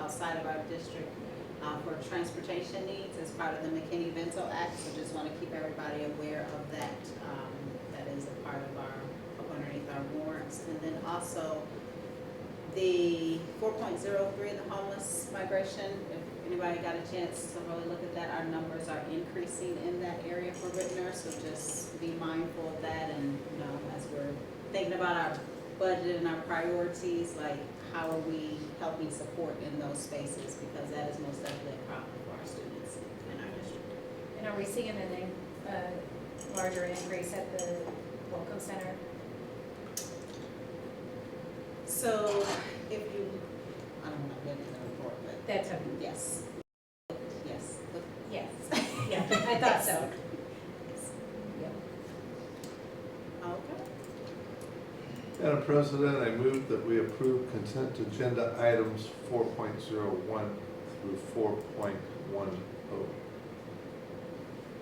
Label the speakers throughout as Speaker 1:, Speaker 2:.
Speaker 1: outside of our district uh, for transportation needs as part of the McKinney-Vento Act. So just want to keep everybody aware of that. um, That is a part of our, up underneath our warrants. And then also the four point zero three, the homeless migration, if anybody got a chance to really look at that, our numbers are increasing in that area for Rittner, so just be mindful of that and, you know, as we're thinking about our budget and our priorities, like, how are we helping support in those spaces, because that is most definitely a problem for our students in our district.
Speaker 2: And are we seeing an, in- a larger increase at the Welcome Center?
Speaker 1: So, if you, I don't know, maybe the report, but,
Speaker 2: That's a,
Speaker 1: yes, yes, the-
Speaker 2: yes, yeah, I thought so. Yep.
Speaker 1: okay.
Speaker 3: Madam President, I move that we approve consent agenda items four point zero one through four point one oh.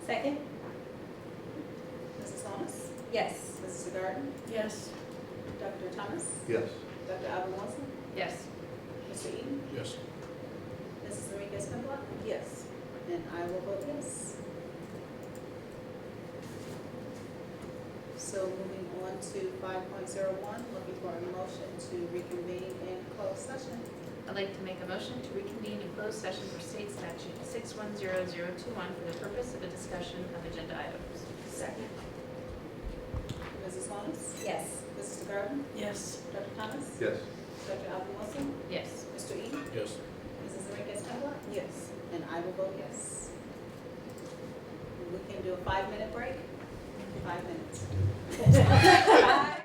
Speaker 2: Second?
Speaker 1: Mrs. Thomas?
Speaker 2: Yes.
Speaker 1: Mrs. Garden?
Speaker 4: Yes.
Speaker 1: Dr. Thomas?
Speaker 3: Yes.
Speaker 1: Dr. Alvin Wilson?
Speaker 4: Yes.
Speaker 1: Mr. Eden?
Speaker 5: Yes.
Speaker 1: Mrs. Enriquez Pinblock?
Speaker 4: Yes.
Speaker 1: And I will vote yes. So moving on to five point zero one, looking for a motion to reconvene in closed session.
Speaker 4: I'd like to make a motion to reconvene in closed session for state statute six one zero zero two one for the purpose of a discussion of agenda items. Second.
Speaker 1: Mrs. Holmes?
Speaker 2: Yes.
Speaker 1: Mrs. Garden?
Speaker 4: Yes.
Speaker 1: Dr. Thomas?
Speaker 3: Yes.
Speaker 1: Dr. Alvin Wilson?
Speaker 4: Yes.
Speaker 1: Mr. Eden?
Speaker 5: Yes.
Speaker 1: Mrs. Enriquez Pinblock?
Speaker 4: Yes.
Speaker 1: And I will vote yes. We can do a five-minute break? Five minutes.